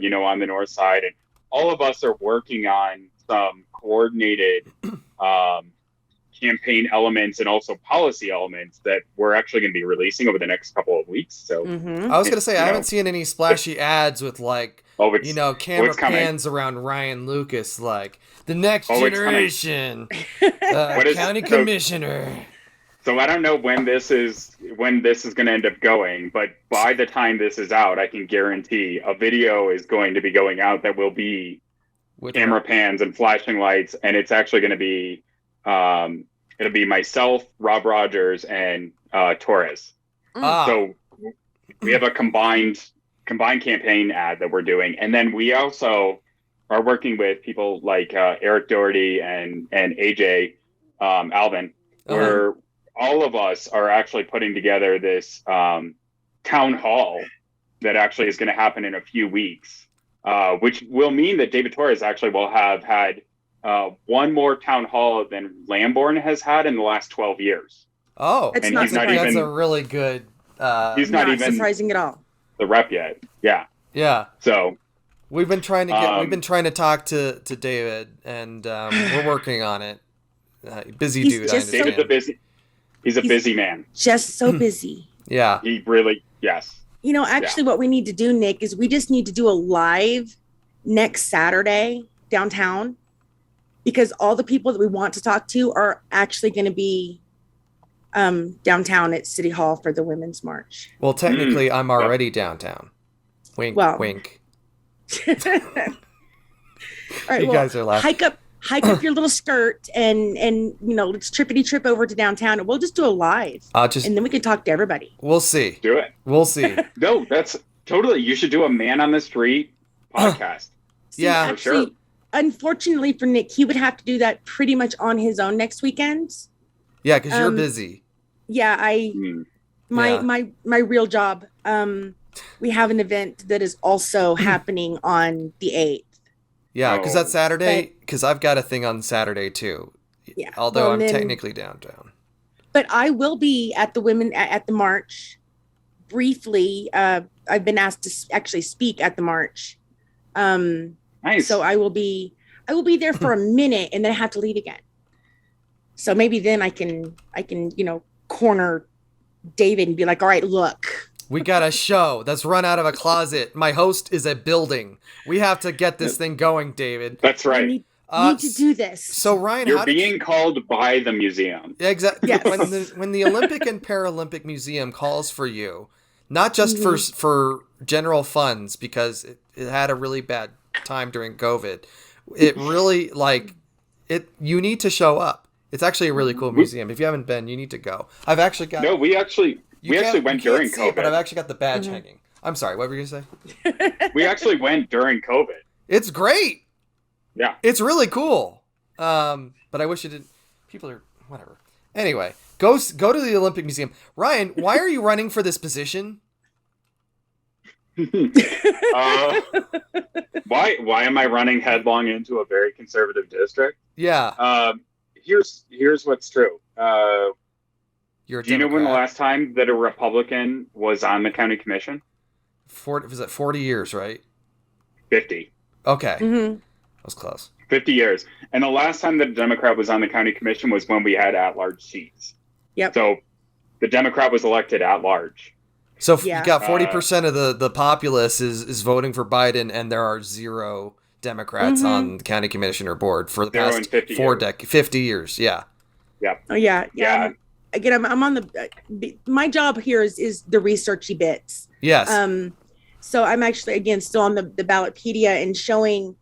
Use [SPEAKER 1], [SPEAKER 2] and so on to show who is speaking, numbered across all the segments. [SPEAKER 1] you know, on the north side. And all of us are working on some coordinated um, campaign elements and also policy elements that we're actually going to be releasing over the next couple of weeks. So,
[SPEAKER 2] Mm.
[SPEAKER 3] Mm-hmm.
[SPEAKER 2] I was gonna say
[SPEAKER 1] You
[SPEAKER 2] I
[SPEAKER 1] know.
[SPEAKER 2] haven't seen any splashy ads with like
[SPEAKER 1] oh, it's,
[SPEAKER 2] you know camera
[SPEAKER 1] it's coming.
[SPEAKER 2] pans around Ryan Lucas like the next
[SPEAKER 1] Oh, it's coming.
[SPEAKER 2] generation uh,
[SPEAKER 1] What is-
[SPEAKER 2] county
[SPEAKER 1] so-
[SPEAKER 2] commissioner.
[SPEAKER 1] so I don't know when this is when this is going to end up going, but by the time this is out, I can guarantee a video is going to be going out that will be
[SPEAKER 2] With
[SPEAKER 1] camera pans and flashing lights, and it's actually going to be um, it'll be myself, Rob Rogers, and uh, Torres.
[SPEAKER 2] Ah,
[SPEAKER 1] So we have a combined combined campaign ad that we're doing, and then we also are working with people like uh, Eric Doherty and and AJ um, Alvin,
[SPEAKER 2] okay.
[SPEAKER 1] where all of us are actually putting together this um, town hall that actually is going to happen in a few weeks, uh, which will mean that David Torres actually will have had uh, one more town hall than Lamborn has had in the last twelve years.
[SPEAKER 2] oh,
[SPEAKER 3] It's
[SPEAKER 1] and
[SPEAKER 3] not
[SPEAKER 1] he's not
[SPEAKER 3] surprising.
[SPEAKER 2] that's
[SPEAKER 1] even
[SPEAKER 2] a really good. Uh,
[SPEAKER 1] he's not, even
[SPEAKER 3] surprising at all.
[SPEAKER 1] the rep yet. Yeah,
[SPEAKER 2] yeah.
[SPEAKER 1] so.
[SPEAKER 2] We've been trying to get.
[SPEAKER 1] Um,
[SPEAKER 2] we've been trying to talk to to David, and um, we're working on it. Uh, busy
[SPEAKER 3] He's
[SPEAKER 2] dude, I
[SPEAKER 3] just so-
[SPEAKER 2] understand.
[SPEAKER 1] David's a busy. He's a
[SPEAKER 3] He's-
[SPEAKER 1] busy man.
[SPEAKER 3] Just
[SPEAKER 2] Hmm.
[SPEAKER 3] so busy.
[SPEAKER 2] yeah,
[SPEAKER 1] He really, yes.
[SPEAKER 3] You know, actually, what we need to do, Nick, is we just need to do a live next Saturday downtown because all the people that we want to talk to are actually going to be um, downtown at City Hall for the Women's March.
[SPEAKER 1] Hmm.
[SPEAKER 2] Well, technically, I'm already downtown. Wink,
[SPEAKER 3] Well,
[SPEAKER 2] wink.
[SPEAKER 3] all right,
[SPEAKER 2] You
[SPEAKER 3] well,
[SPEAKER 2] guys are laughing.
[SPEAKER 3] hike up, hike up your little skirt, and and you know, let's trippity trip over to downtown, and we'll just do a live,
[SPEAKER 2] I'll just.
[SPEAKER 3] and then we can talk to everybody.
[SPEAKER 2] We'll see.
[SPEAKER 1] Do it.
[SPEAKER 2] We'll see.
[SPEAKER 1] No, that's totally. You should do a man on the street podcast.
[SPEAKER 2] Yeah.
[SPEAKER 1] For sure.
[SPEAKER 3] Unfortunately for Nick, he would have to do that pretty much on his own next weekend.
[SPEAKER 2] Yeah, because you're
[SPEAKER 3] Um,
[SPEAKER 2] busy.
[SPEAKER 3] yeah i
[SPEAKER 1] Hmm.
[SPEAKER 3] my
[SPEAKER 2] Yeah.
[SPEAKER 3] my my real job um we have an event that is also happening on the 8th
[SPEAKER 2] Yeah, because
[SPEAKER 1] oh,
[SPEAKER 2] that's Saturday. Because I've got a thing on Saturday too.
[SPEAKER 3] yeah
[SPEAKER 2] Although
[SPEAKER 3] Well,
[SPEAKER 2] I'm
[SPEAKER 3] then-
[SPEAKER 2] technically downtown.
[SPEAKER 3] but i will be at the women a- at the march briefly uh i've been asked to s- actually speak at the march um
[SPEAKER 1] Nice.
[SPEAKER 3] so i will be i will be there for a minute and then i have to leave again so maybe then i can i can you know corner david and be like all right look
[SPEAKER 2] We got a show that's run out of a closet. My host is a building. We have to get this thing going, David.
[SPEAKER 1] that's
[SPEAKER 3] I
[SPEAKER 1] right.
[SPEAKER 3] need,
[SPEAKER 2] Uh,
[SPEAKER 3] need to do this
[SPEAKER 2] so Ryan,
[SPEAKER 1] You're
[SPEAKER 2] how did you-
[SPEAKER 1] being called by the museum.
[SPEAKER 2] Exactly.
[SPEAKER 3] Yes.
[SPEAKER 2] When the when the Olympic and Paralympic Museum calls for you, not just for
[SPEAKER 1] Mm-hmm.
[SPEAKER 2] s for general funds because it, it had a really bad time during COVID. It
[SPEAKER 1] Mm-hmm.
[SPEAKER 2] really like it. You need to show up. It's actually a
[SPEAKER 1] Mm-hmm.
[SPEAKER 2] really cool museum. If you haven't been, you need to go. I've actually got.
[SPEAKER 1] No, we actually
[SPEAKER 2] you
[SPEAKER 1] we
[SPEAKER 2] can't-
[SPEAKER 1] actually
[SPEAKER 2] you
[SPEAKER 1] went
[SPEAKER 2] can't
[SPEAKER 1] during
[SPEAKER 2] see it, but
[SPEAKER 1] COVID.
[SPEAKER 2] I've
[SPEAKER 1] Mm-hmm.
[SPEAKER 2] actually got the badge
[SPEAKER 3] Mhm.
[SPEAKER 2] hanging. I'm sorry. What were you gonna say?
[SPEAKER 1] we actually went during COVID.
[SPEAKER 2] It's great.
[SPEAKER 1] Yeah.
[SPEAKER 2] It's really cool. Um, but I wish it didn't. People are whatever. Anyway, go s- go to the Olympic Museum. Ryan, why are you running for this position?
[SPEAKER 1] uh, why why am I running headlong into a very conservative district?
[SPEAKER 2] Yeah,
[SPEAKER 1] Um, here's here's what's true. Uh,
[SPEAKER 2] you're. A
[SPEAKER 1] do you know when the
[SPEAKER 2] Democrat.
[SPEAKER 1] last time that a Republican was on the county commission?
[SPEAKER 2] Forty was it forty years? Right.
[SPEAKER 1] Fifty.
[SPEAKER 2] Okay, that
[SPEAKER 3] Mhm.
[SPEAKER 2] was close.
[SPEAKER 1] 50 years. And the last time that a Democrat was on the county commission was when we had at large seats.
[SPEAKER 3] Yep.
[SPEAKER 1] So the Democrat was elected at large.
[SPEAKER 2] So if
[SPEAKER 3] Yeah.
[SPEAKER 2] you got
[SPEAKER 1] Uh,
[SPEAKER 2] forty percent of the the populace is is voting for Biden, and there are zero Democrats
[SPEAKER 3] Mhm.
[SPEAKER 2] on the county commissioner board for the
[SPEAKER 1] Zero in
[SPEAKER 2] past
[SPEAKER 1] 50
[SPEAKER 2] four
[SPEAKER 1] years.
[SPEAKER 2] decades, fifty years. Yeah.
[SPEAKER 3] Oh yeah, yeah.
[SPEAKER 1] Yeah.
[SPEAKER 3] I'm- again, I'm, I'm on the. uh, b- My job here is is the researchy bits.
[SPEAKER 2] Yes.
[SPEAKER 3] Um, so I'm actually again still on the the ballotpedia and showing,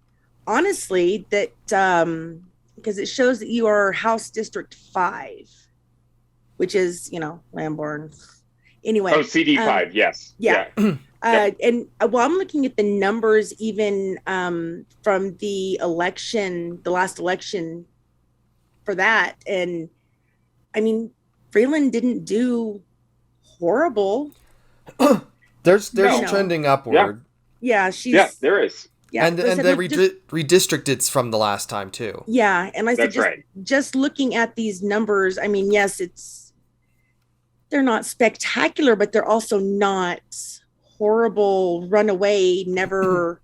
[SPEAKER 3] honestly, that um because it shows that you are House District Five, which is you know Lamborn. Anyway,
[SPEAKER 1] Oh, CD5, yes.
[SPEAKER 3] um, yeah. uh,
[SPEAKER 1] Yep.
[SPEAKER 3] and uh, well, I'm looking at the numbers even um, from the election, the last election for that. And I mean, Freeland didn't do horrible.
[SPEAKER 2] there's there's
[SPEAKER 3] no.
[SPEAKER 2] trending upward,
[SPEAKER 3] Yeah, she's.
[SPEAKER 1] Yeah, yeah there is.
[SPEAKER 3] yeah,
[SPEAKER 2] and
[SPEAKER 3] but I
[SPEAKER 2] and
[SPEAKER 3] said,
[SPEAKER 2] the
[SPEAKER 3] look, just-
[SPEAKER 2] redi- redistricted's from the last time too.
[SPEAKER 3] yeah, and I said,
[SPEAKER 1] That's
[SPEAKER 3] just,
[SPEAKER 1] right.
[SPEAKER 3] just looking at these numbers, I mean, yes, it's. They're not spectacular, but they're also not horrible, runaway, never